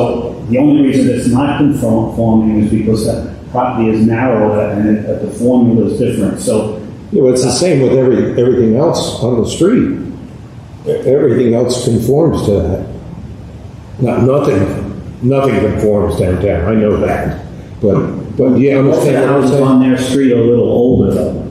Oh, The only reason it's not conforming is because the property is narrower and it- but the formula is different. So Yeah, well, it's the same with every, everything else on the street. E- Everything else conforms to that. Not, nothing, nothing conforms downtown, I know that. But, but yeah, I most of the understand what you're houses saying. on their street are a little older though.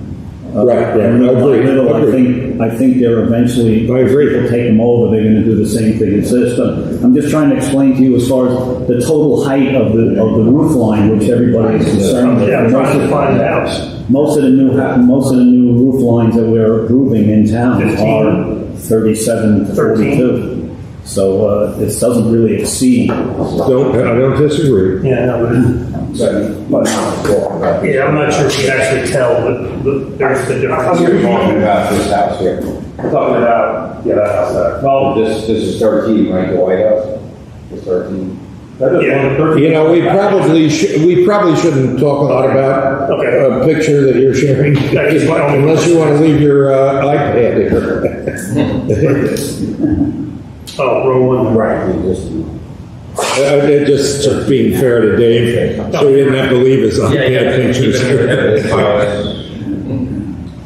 Uh, Right, right. they're not Agreed, little. I agreed. think, I think they're eventually. I agree. People take them over, they're gonna do the same thing. It's just, uh, I'm just trying to explain to you as far as the total height of the, of the roof line, which everybody is concerned with. Yeah, I'm trying to find the house. Most of the new, ha- most of the new roof lines that we're approving in town are thirty-seven to forty-two. So, uh, this doesn't really exceed. Don't, I don't disagree. Yeah, no, but, yeah, I'm not sure if you can actually tell, but, but there's the difference. You're talking about this house here. I'm talking about, yeah, that house there. Well, This, this is 13, right, the White House? It's 13. yeah, You know, we probably should, we probably shouldn't talk a lot about Okay. a picture that you're sharing. That is my only- Unless you want to leave your uh, iPad here. oh, row one. Right. We just- Uh, they're just sort of being fair to Dave, so he didn't have to leave his iPad pictures uh, here.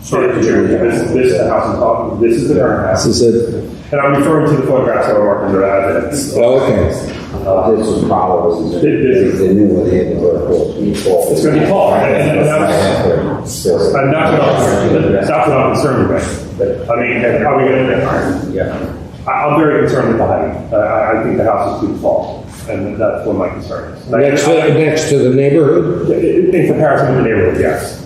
Sorry, Mr. Chairman, this, this is the house I'm talking, this is the current house. This is it, And I'm referring to the photographs that were marked under evidence. oh, okay. This is probably, It is. it's the new one, they had the vertical. It's gonna be tall, and- and that's- And that's what I'm, that's what I'm concerned about. I mean, how are we gonna, Yeah. I, I'm very concerned with the height. I, I think the house is too tall, and that's one of my concerns. Next uh, to, next to the neighborhood? In comparison to the neighborhood, yes.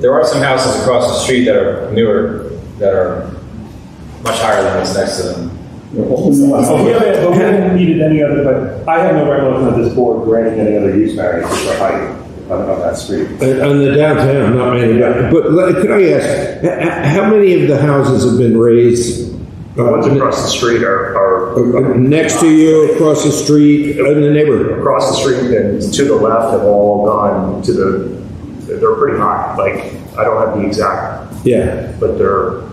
There are some houses across the street that are newer, that are much higher than what's next to them. But we haven't, but we haven't needed any other, but I have no recollection of this board granting any other use variance for height on, on that street. Uh, On the downtown, not many, but, but let- could I ask, h- h- how many of the houses have been raised? The ones uh, across the street are, are uh, Next to you, across the street, in the neighborhood? across the street and to the left have all gone to the, they're pretty high. Like, I don't have the exact, Yeah, but they're.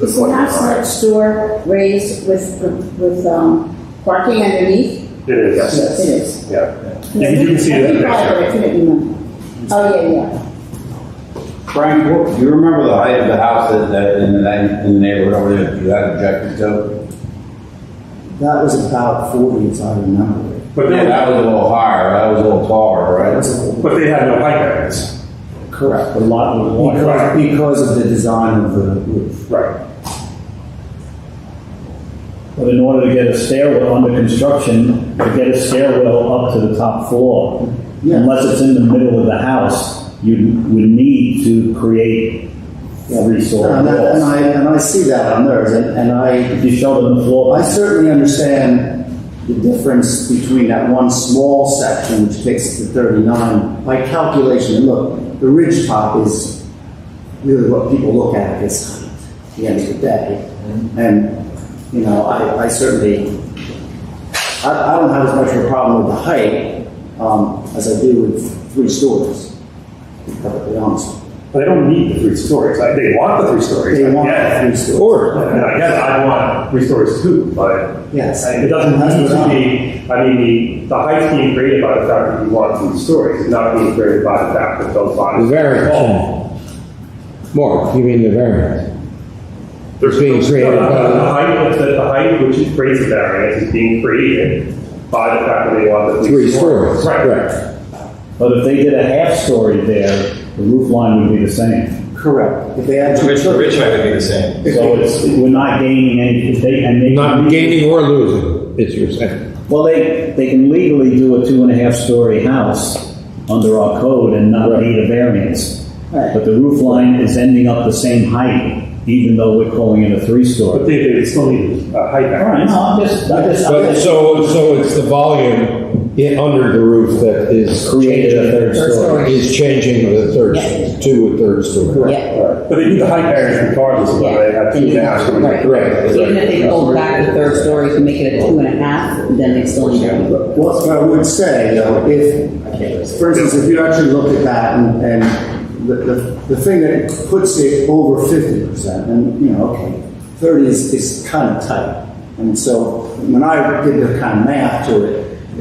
Is the house next door raised with, with um, parking underneath? It is, Yes. It is. yeah. You can- you can see I it in the think picture. I couldn't remember. Oh, yeah, yeah. Frank, what- do you remember the height of the house that, that in the, na- in the neighborhood over there, that you had objected to? That was about 40, as I remember it. But Yeah, they, that was a little higher, that was a little taller, right? but they had no height variance. Correct. The lot was wide. Because, because of the design of the roof. Right. But in order to get a stairwell under construction, to get a stairwell up to the top floor, Yeah. unless it's in the middle of the house, you would need to create three story And that- and walls. I, and I see that on theirs, and and I, If you showed them the floor, I certainly understand the difference between that one small section, which takes it to 39, by calculation, and look, the ridge top is really what people look at at this height, at the end of the day. Mm-hmm. And, you know, I, I certainly I, I don't have as much of a problem with the height um, as I do with three stories, to be perfectly honest. They don't need the three stories. Like, They want the three stories. They want Yeah. three stories. or, And I guess I want three stories too, but Yes. it doesn't need to be, I mean, the, the height's being created by the fact that you want three stories, it's not being created by the fact that those the bodies. variance. Mark, you mean the variance? There's Being No, created no, no, The by, height, the, the height which is creates the variance is being created by the fact that they want the three three stories, stories. right? but if they did a half story there, the roof line would be the same. Correct. If they had two Which, children, which height would be the same? So it's, we're not gaining any, if they, and they. Not gaining or losing, it's your saying. Well, they, they can legally do a two and a half story house under our code and not need a variance. Right. But the roof line is ending up the same height, even though we're calling it a three But story. they, they still need a height All right, variance. no, I'm just, I just, I But just so, so it's the volume in, under the roof that is created a third story. is changing the third, to a third story. Yeah, But they need the height variance regardless of whether they have two and a half stories. right. Right. Even if they go back to third story to make it a two and a half, then they still need it. what I would say, though, if, for instance, if you actually look at that and, and the, the, the thing that puts it over 50%, and, you know, okay, 30 is, is kind of tight. And so when I did the kind of math to it,